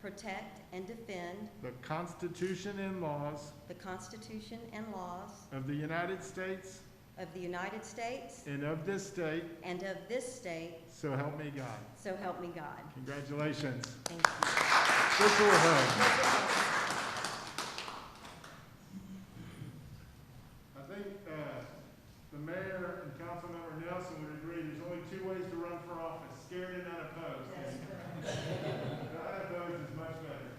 protect, and defend the Constitution and laws the Constitution and laws of the United States of the United States and of this state, and of this state, so help me God. so help me God. Congratulations. Thank you. Virtual hug. I think uh, the mayor and Councilmember Nelson would agree, there's only two ways to run for office, scared and unopposed. Unopposed is much better.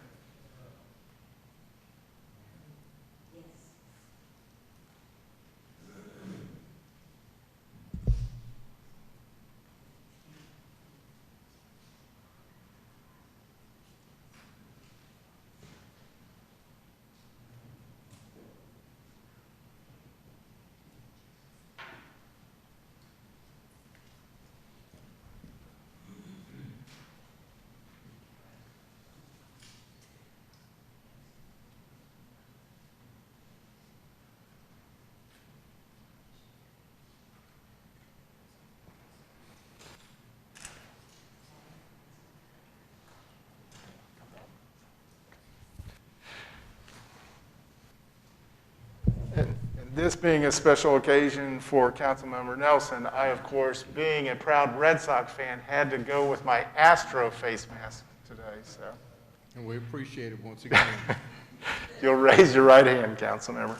And This being a special occasion for Councilmember Nelson, I, of course, being a proud Red Sox fan, had to go with my Astro face mask today, so. And we appreciate it once again. If You'll raise your right hand, Councilmember.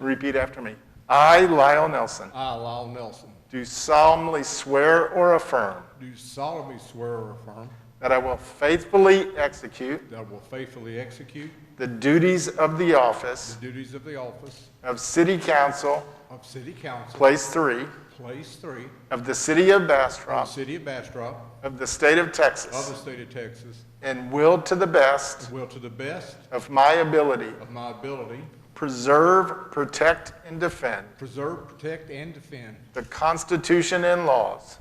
Repeat after me. I, Lyle Nelson, I, Lyle Nelson, do solemnly swear or affirm do solemnly swear or affirm that I will faithfully execute that I will faithfully execute the duties of the the office duties of the office of City Council, of City Council, Place 3, Place Three, of the City of of the Bastrop, City of Bastrop, of the State of of the Texas, State of Texas, and will to the best will to the best of my ability of my ability preserve, protect, and defend preserve, protect, and defend the Constitution and laws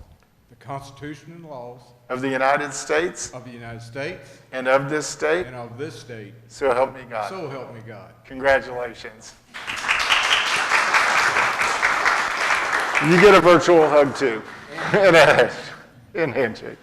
the Constitution and laws of the United States of the United States and of this state, and of this state. so help me God. So help me God. Congratulations. You get a virtual hug too. And a and handshake.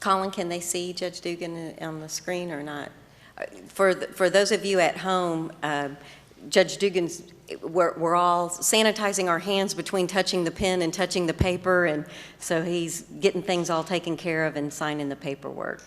Colin, can they see Judge Dugan on the screen or not? Uh, For, th- for those of you at home, uh, Judge Dugan's, we're, we're all sanitizing our hands between touching the pen and touching the paper, and so he's getting things all taken care of and signing the paperwork.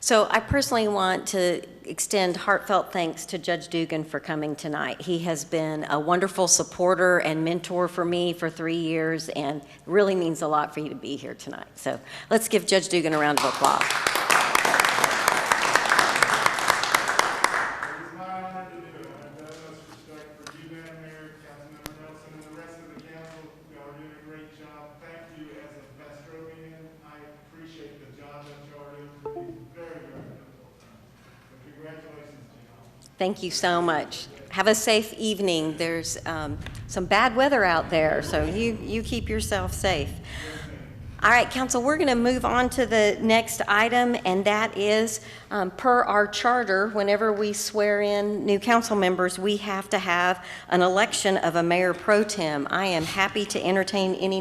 So I personally want to extend heartfelt thanks to Judge Dugan for coming tonight. He has been a wonderful supporter and mentor for me for three years, and really means a lot for you to be here tonight. So let's give Judge Dugan a round of applause. It is my honor to do it. I have the utmost respect for you, Madam Mayor, Councilmember Nelson, and the rest of the council. Y'all are doing a great job. Thank you as a Bastrovian. I appreciate the job that y'all are doing for these very, very difficult times. So Congratulations to y'all. Thank you so much. Have a safe evening. There's um, some bad weather out there, so you, you keep yourself safe. All right, council, we're going to move on to the next item, and that is, um, per our charter, whenever we swear in new council members, we have to have an election of a mayor pro tem. I am happy to entertain any